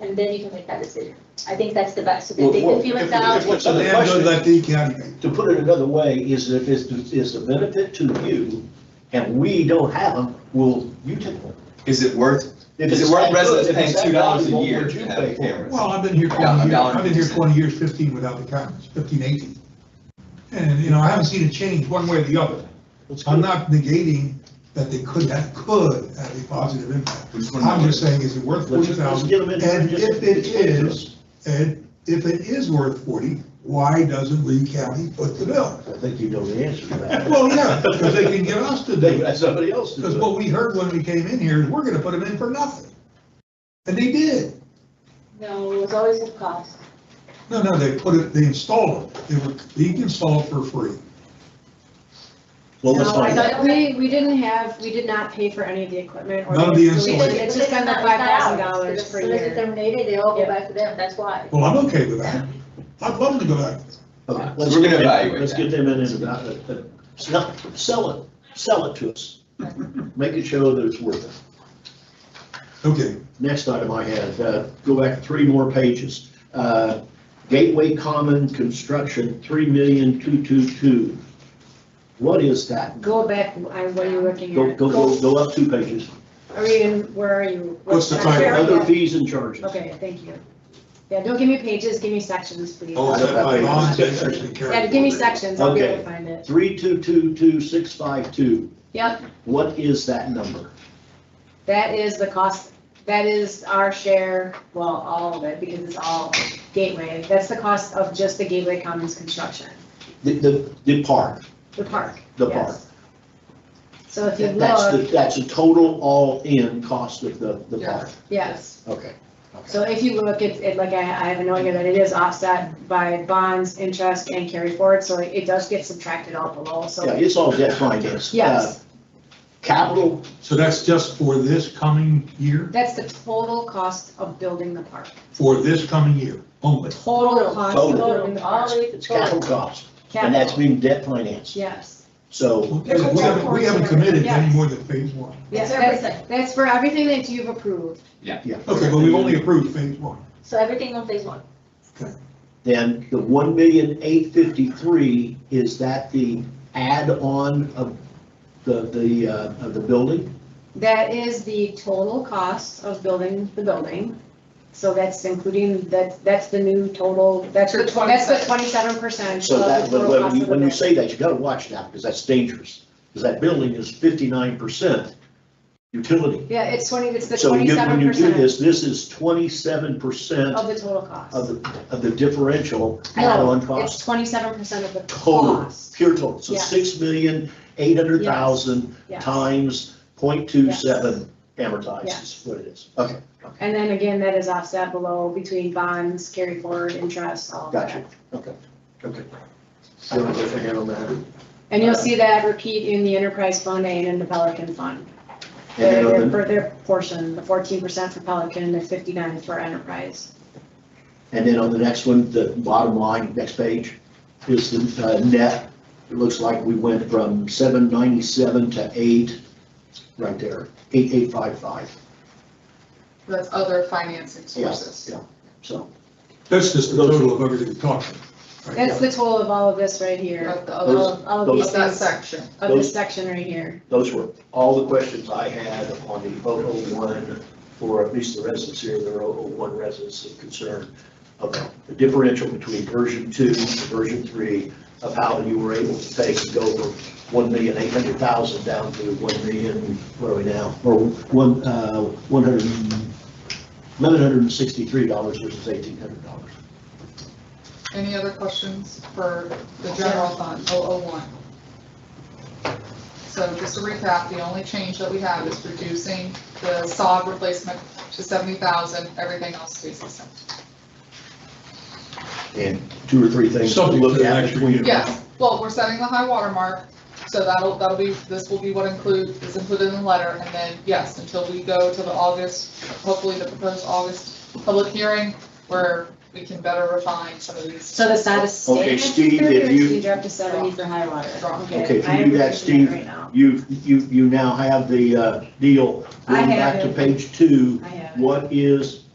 and then you can make that decision. I think that's the best, so Well, that they well, can feel if- it out. if- if- So So the they have to question- let the county, To put it another way, is if it's, it's a benefit to you and we don't have them, will you take one? Is it worth, If Is it it's worth that good, residents if paying it's that $2 a valuable, year would you to have pay for it? cameras? well, I've been here Yeah, a twenty years, dollar I've been here fifty. twenty years, fifteen without the cameras, fifteen, eighteen. And, you know, I haven't seen a change one way or the other. I'm not negating that they could, that could have a positive impact. we just wanna know I'm what just it is. saying, is it Let's worth forty just- let's get thousand? them in. And Just- if it just get them. is, and if it is worth forty, why doesn't Lee County put the bill? I think you know the answer to that. Well, yeah, because they can get us to do They it. got somebody else to Because do it. what we heard when we came in here is we're gonna put them in for nothing. And they did. No, it's always a cost. No, no, they put it, they installed them. They were, they installed for free. Well, let's No, I find out. thought, we, we didn't have, we did not pay for any of the equipment. or None of the installation. installation. It's just been the It's five not- it's not thousand ours. dollars per As soon as it's year. terminated, they all go Yeah. back to them, that's why. Well, I'm okay with that. I'd love to go back. Okay, So let's we're get gonna them- evaluate Let's that. get them in and, uh, uh, uh, sell, sell it, sell it to us. Make it show that it's worth it. Okay, Next item I had, uh, go back three more pages. Uh, Gateway Common Construction, three million two two two. What is that? Go back, I, what are you looking Go, at? go, go, go up two pages. Are we in, where are you? What's the I'm title? sorry. Other fees and charges. Okay, thank you. Yeah, don't give me pages, give me sections, please. oh, is that my That's okay. non-section carry? Yeah, give me sections, I'll be able Okay. to find it. Three two two two six five two. Yep, What is that number? that is the cost, that is our share, well, all of it, because it's all gateway. That's the cost of just the Gateway Commons construction, The, the, the park, the park. the yes. park. So if you That's the, look, that's a total all-in cost of the, the park. yes. Okay. So if you look, it's, it, like I, I have a note here that it is offset by bonds, interest, and carry forward, so it does get subtracted out below, Yeah, so, it's all debt financed. yes. Uh, Capital, So that's just for this coming uh, year, That's the total cost of building the park, for this coming year only. total cost of Total. Total, building the all park. the way to it's capital total. cost, and that's Capital, being debt financed. yes, So, We haven't, we haven't committed any more than phase one. yes, It's that's, everything. that's for everything that you've approved, yeah. Okay, but we've only approved phase one. So everything on phase one. Then the one million eight fifty-three, is that the add-on of the, the, uh, of the building? that is the total cost of building the building. So that's including, that, that's the new total, that's, For the twen- that's the 27. twenty-seven percent of So the that, when- total cost when you, of the when you building. say that, you gotta watch that, because that's dangerous, because that building is fifty-nine percent utility. Yeah, it's twenty, it's the So you- when twenty-seven you do percent this, this is twenty-seven percent of the total of cost. the, of the differential No, add-on it's cost. twenty-seven percent of the Total, cost. pure total, so Yes. six million, eight hundred thousand Yes. times point two seven amortized is what it is. Okay, And then again, that is offset below between bonds, carry forward, interest, all of that. gotcha, okay, okay. I don't know if I got on that. And And you'll see that repeat in the enterprise fund and in the Pelican fund. then Their, on the- their- their portion, the fourteen percent for Pelican, the fifty-nine for enterprise. And then on the next one, the bottom line, next page, is the uh, net. It looks like we went from seven ninety-seven to eight, right there, eight eight five five. That's other financing Yes, sources. yeah, so. That's just the total of everything we talked about. right? That's the total of all of this right here, Of the all other, of, all of Those- these of that things, section. of this section right here. Those were all the questions I had on the 001, for at least the residents here, there are 001 residents of concern about the differential between version two and version three of how you were able to take and go from 1,800,000 down to 1 million, what are we now? Or one, uh, 100, $1,163 versus $1,800. Any other questions for the general fund, 001? So just to recap, the only change that we have is reducing the sod replacement to 70,000, everything else stays the same. And two or three things to Something to look the at next between. review. Yes, well, we're setting the high water mark, so that'll, that'll be, this will be what include, is included in the letter, and then, yes, until we go to the August, hopefully the proposed August public hearing, where we can better refine some of these. So the status staying Okay, at Steve, if 230, or you- should we drop to seventy for high water? Drop. Okay, if you I do am that, looking at it Steve, right now. You've, you, you now have the uh, deal, I going have back to it. page two, I have it. what is